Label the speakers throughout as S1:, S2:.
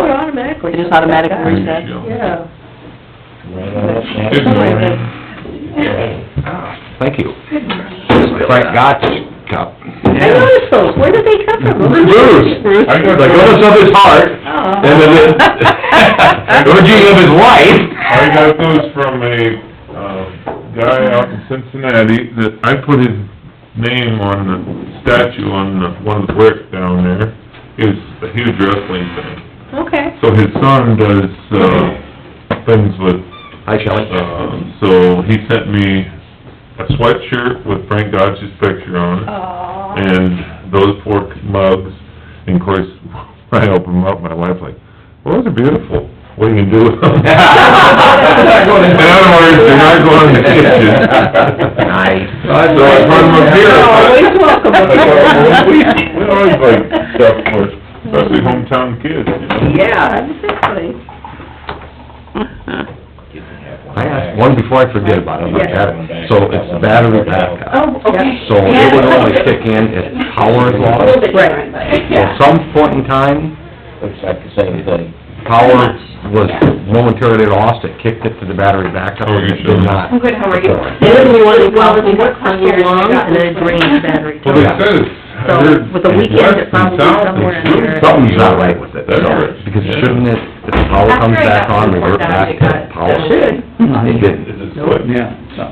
S1: Oh,
S2: we just automatically reset?
S1: Yeah.
S3: Right off.
S4: Good morning.
S5: Thank you. Frank got this cup.
S1: I noticed those, where did they come from?
S5: Bruce.
S1: Bruce.
S4: I got
S5: Like,
S4: those,
S5: opens up his heart,
S1: Oh.
S5: and then, it- OG of his wife.
S4: I got those from a, uh, guy out in Cincinnati that I put his name on the statue on the, one of the bricks down there. He was a huge wrestling fan.
S1: Okay.
S4: So his son does, uh, things with
S5: Hi, Shelley.
S4: Um, so he sent me a sweatshirt with Frank Dodge's picture
S1: Oh,
S4: on it,
S1: Aw.
S4: and those four mugs, and of course, when I opened them up, my wife's like, well, those are beautiful, what are you gonna do with them? In other words, they're not going in the kitchen.
S5: Nice.
S4: So I brought them up here.
S2: Oh,
S1: Always welcome.
S4: I thought, well, We we always like stuff for, especially hometown kids, you know?
S1: Yeah, exactly.
S5: I asked one before I forget about it, like that, so it's battery backup.
S1: Oh, okay.
S5: So it would only kick in if power is
S3: A
S5: lost.
S3: little
S1: Right.
S5: At some point in time,
S3: Looks like the same thing.
S5: power was momentarily lost, it kicked it to the battery backup,
S4: Oh,
S5: and
S4: you
S5: it did
S4: sure?
S5: not.
S6: I'm good, how are you?
S2: They wouldn't be wanting to call me what comes along and then drain the battery.
S4: Well, they said it's, I
S2: So,
S4: heard,
S2: with the weekend, it
S4: west
S2: probably
S4: and south,
S2: somewhere
S4: it's
S2: in there.
S4: shooting
S5: Something's not right with it,
S4: That's right.
S5: because shouldn't it, if the power comes back on, revert back to power?
S2: Should.
S5: It didn't.
S4: It's a split.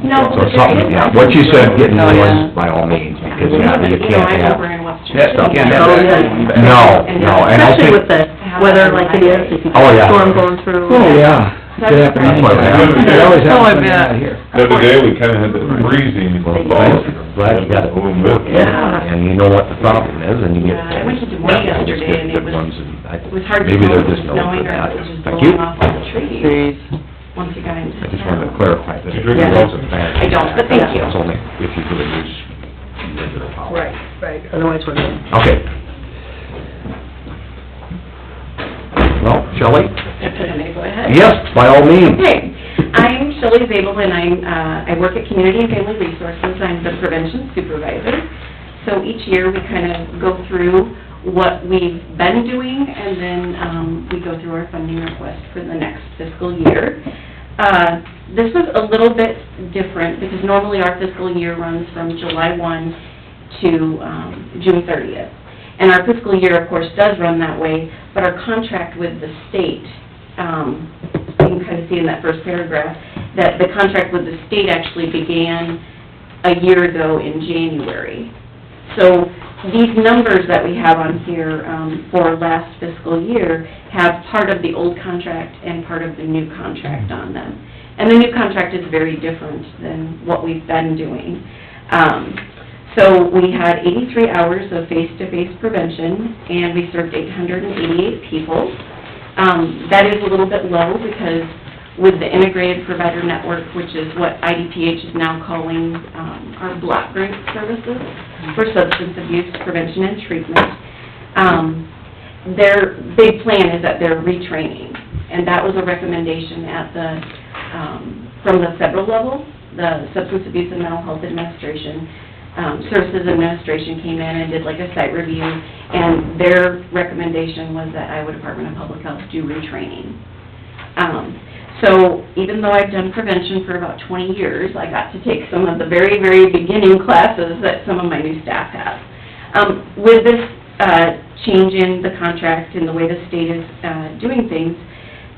S6: No,
S5: So something, yeah, what you said, get
S2: Oh,
S6: Oh,
S5: noise by all means, because, yeah, you can't
S6: You know, I'm over in
S5: have
S6: West Chester.
S5: stuff.
S2: can't
S6: Oh,
S2: have that going back.
S5: No, no, and I
S2: Especially with
S5: think,
S2: the weather like it is, if you got
S5: Oh,
S2: a
S5: yeah.
S2: storm going through.
S7: Oh, yeah.
S6: That's
S7: Could happen
S5: That's why it
S7: anytime.
S4: happens.
S7: It
S2: Oh, I
S7: always happens
S2: bet.
S7: when I'm out here.
S4: The other day, we kinda had that freezing
S5: well,
S4: thaw.
S5: I'm glad you got it working, and you know what the problem is, and you get.
S6: Yeah, I went to Dwayne yesterday, and it was- It was hard to
S5: Maybe
S6: tell
S5: they're
S6: if it was
S5: just known
S6: snowing or
S5: for
S6: if
S5: that.
S6: it was just
S5: Thank you.
S6: blowing off the tree
S2: Trees.
S6: once you got into
S5: I just wanted to
S6: town.
S5: clarify that.
S4: Did you drink
S2: Yeah.
S5: It's a fact.
S6: I don't, but thank you.
S5: It's only if you really use regular power.
S1: Right, right, otherwise we're good.
S5: Okay. Well, Shelley?
S6: If it's okay, go ahead.
S5: Yes, by all means.
S6: Okay, I'm Shelley Zabel, and I'm, uh, I work at Community and Family Resources, I'm the prevention supervisor. So each year, we kind of go through what we've been doing, and then, um, we go through our funding request for the next fiscal year. Uh, this was a little bit different, because normally our fiscal year runs from July one to, um, June thirtieth. And our fiscal year, of course, does run that way, but our contract with the state, um, you can kind of see in that first paragraph, that the contract with the state actually began a year ago in January. So these numbers that we have on here um, for last fiscal year have part of the old contract and part of the new contract on them. And the new contract is very different than what we've been doing. Um, So we had 83 hours of face-to-face prevention, and we served 888 people. Um, that is a little bit low because with the integrated provider network, which is what IDPH is now calling, um, our block grant services for substance abuse prevention and treatment, um, their big plan is that they're retraining. And that was a recommendation at the, um, from the federal level, the Substance Abuse and Mental Health Administration, um, Services Administration came in and did like a site review, and their recommendation was that Iowa Department of Public Health do retraining. Um, so even though I've done prevention for about twenty years, I got to take some of the very, very beginning classes that some of my new staff have. Um, with this, uh, change in the contract and the way the state is, uh, doing things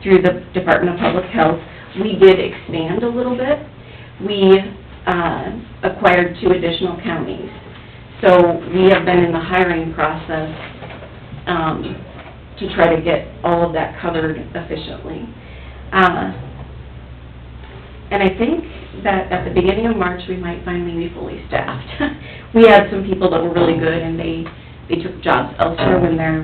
S6: through the Department of Public Health, we did expand a little bit. We, uh, acquired two additional counties. So we have been in the hiring process, um, to try to get all of that covered efficiently. Uh, And I think that at the beginning of March, we might finally be fully staffed. We had some people that were really good, and they, they took jobs elsewhere when they're,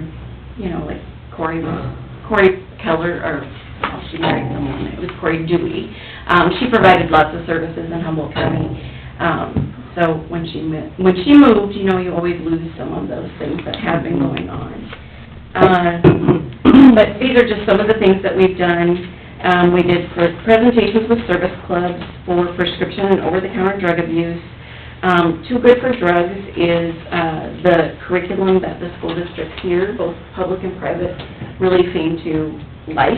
S6: you know, like Corey was, Corey Keller, or, oh, she married someone, it was Corey Dewey. Um, she provided lots of services in Humboldt County. Um, so when she, mo- when she moved, you know, you always lose some of those things that have been going on. Uh, But these are just some of the things that we've done. Um, We did pre- presentations with service clubs for prescription and over-the-counter drug abuse. Um, Too Good for Drugs is, uh, the curriculum that the school districts here, both public and private, really seem to like.